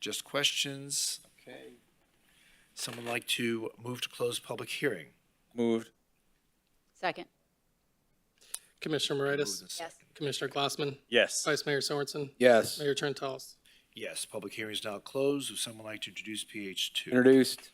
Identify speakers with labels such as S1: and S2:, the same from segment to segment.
S1: Just questions? Okay. Someone like to move to close public hearing?
S2: Moved.
S3: Second.
S4: Commissioner
S1: Moved
S4: Moritas,
S1: and
S3: Yes.
S1: seconded.
S4: Commissioner Glassman,
S2: Yes.
S4: Vice Mayor Sorensen,
S2: Yes.
S4: Mayor Trentalles.
S1: Yes, public hearing is now closed. Would someone like to introduce PH two?
S2: Introduced.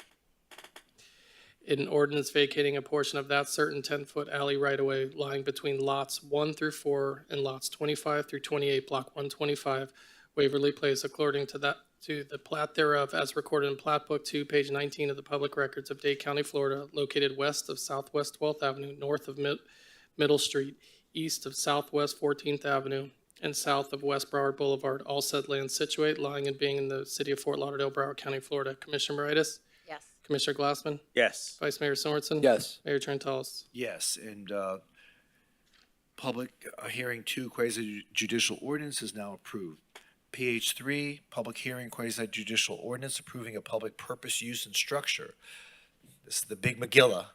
S4: An ordinance vacating a portion of that certain ten-foot alley right-of-way lying between lots one through four and lots twenty-five through twenty-eight, block one twenty-five, Waverly Place according to that, to the plat thereof as recorded in Plat Book Two, page nineteen of the Public Records of Dade County, Florida, located west of Southwest Twelfth Avenue, north of Mid- Middle Street, east of Southwest Fourteenth Avenue, and south of West Broward Boulevard, all said land situate, lying and being in the city of Fort Lauderdale, Broward County, Florida. Commissioner Moritas,
S3: Yes.
S4: Commissioner Glassman,
S2: Yes.
S4: Vice Mayor Sorensen.
S2: Yes.
S4: Mayor Trentalles.
S1: Yes, and, uh, public uh, hearing two quasi judicial ordinance is now approved. PH three, public hearing quasi judicial ordinance approving a public purpose use and structure. This is the Big McGilla,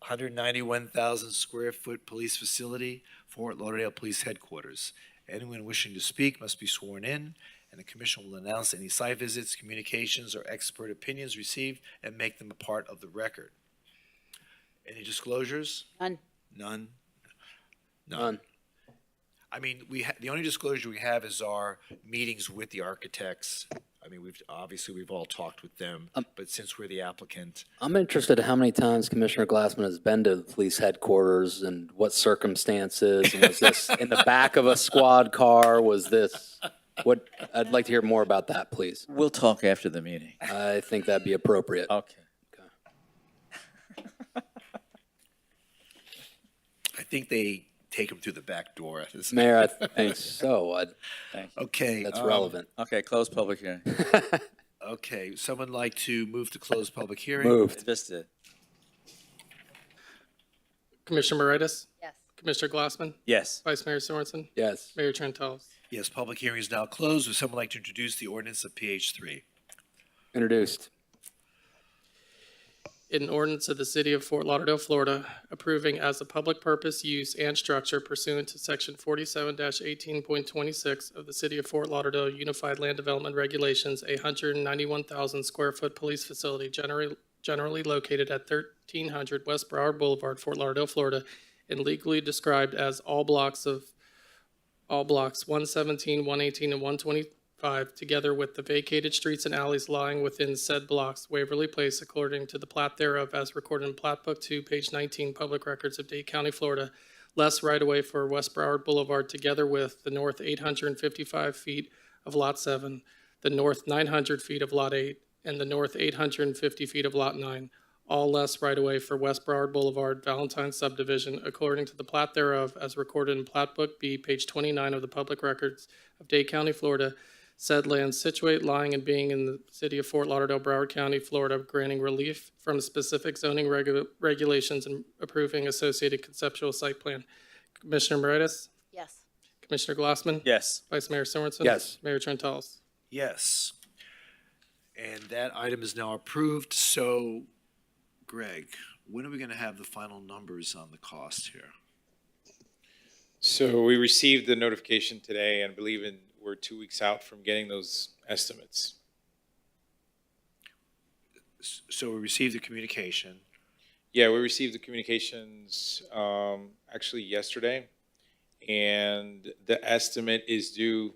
S1: hundred ninety-one thousand square foot police facility, Fort Lauderdale Police Headquarters. Anyone wishing to speak must be sworn in, and the commission will announce any site visits, communications, or expert opinions received and make them a part of the record. Any disclosures?
S3: None.
S1: None?
S2: None.
S1: I mean, we, ha- the only disclosure we have is our meetings with the architects. I mean, we've, obviously, we've all talked with them,
S5: Um,
S1: but since we're the applicant,
S5: I'm interested how many times Commissioner Glassman has been to the police headquarters and what circumstances, and was this in the back of a squad car, was this? What, I'd like to hear more about that, please.
S2: We'll talk after the meeting.
S5: I think that'd be appropriate.
S1: Oh.
S2: Okay.
S1: I think they take them through the back door. This-
S5: Mayor, I think so, I-
S1: Okay.
S5: that's
S1: um,
S5: relevant.
S2: Okay, close public hearing.
S1: Okay, someone like to move to close public hearing?
S5: Moved,
S2: Vista.
S4: Commissioner Moritas,
S3: Yes.
S4: Commissioner Glassman,
S2: Yes.
S4: Vice Mayor Sorensen,
S5: yes.
S4: Mayor Trentalles.
S1: Yes, public hearing is now closed. Would someone like to introduce the ordinance of PH three?
S5: Introduced,
S4: an ordinance of the City of Fort Lauderdale, Florida, approving as a public purpose use and structure pursuant to Section forty-seven eighteen point twenty-six of the City of Fort Lauderdale Unified Land Development Regulations, a hundred and ninety-one thousand square foot police facility generally, generally located at thirteen hundred West Broward Boulevard, Fort Lauderdale, Florida, and legally described as all blocks of, all blocks 117, 118, and one twenty 5, together with the vacated streets and alleys lying within said blocks, Waverly Place, according to the plat thereof as recorded in Plat Book 2, page 19, Public Records of Dade County, Florida, less right-of-way for West Broward Boulevard, together with the north 855 feet of Lot 7, the north 900 feet of Lot 8, and the north 850 feet of Lot 9, all less right-of-way for West Broward Boulevard, Valentine subdivision, according to the plat thereof as recorded in Plat Book B, page 29 of the Public Records of Dade County, Florida, said land situate, lying, and being in the city of Fort Lauderdale, Broward County, Florida, granting relief from specific zoning regu- regulations and approving associated conceptual site plan. Commissioner Moritas,
S3: Yes.
S4: Commissioner Glassman,
S2: Yes.
S4: Vice Mayor Sorensen.
S5: Yes.
S4: Mayor Trentalles.
S1: Yes. And that item is now approved. So Greg, when are we going to have the final numbers on the cost here?
S6: So we received the notification today and believe in, we're two weeks out from getting those estimates.
S1: S- So we received the communication.
S6: Yeah, we received the communications, um, actually yesterday. And the estimate is due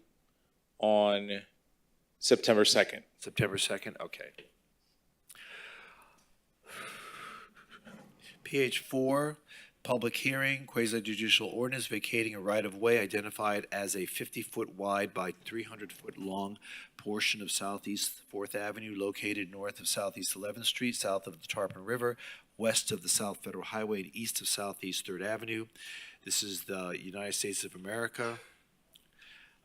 S6: on September second.
S1: September 2nd, okay. PH 4, public hearing, quasi judicial ordinance vacating a right-of-way identified as a 50-foot wide by 300-foot long portion of Southeast 4th Avenue located north of Southeast 11th Street, south of the Tarpon River, west of the South Federal Highway, and east of Southeast 3rd Avenue. This is the United States of America.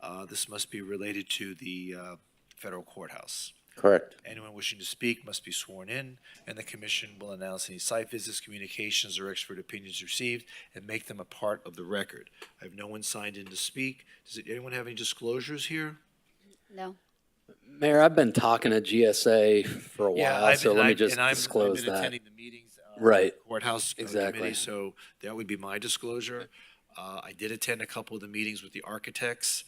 S1: Uh, This must be related to the uh, federal courthouse.
S2: Correct.
S1: Anyone wishing to speak must be sworn in, and the commission will announce any site visits, communications, or expert opinions received and make them a part of the record. I have no one signed in to speak. Does anyone have any disclosures here?
S3: No.
S5: Mayor, I've been talking to GSA for a
S1: Yeah,
S5: while,
S1: I've
S5: so
S1: been-
S5: let me
S1: I've-
S5: just
S1: and I'm- I've
S5: disclose
S1: been
S5: that.
S1: attending the meetings, uh,
S5: Right.
S1: Courthouse uh, Committee,
S5: Exactly.
S1: so that would be my disclosure. Uh, I did attend a couple of the meetings with the architects,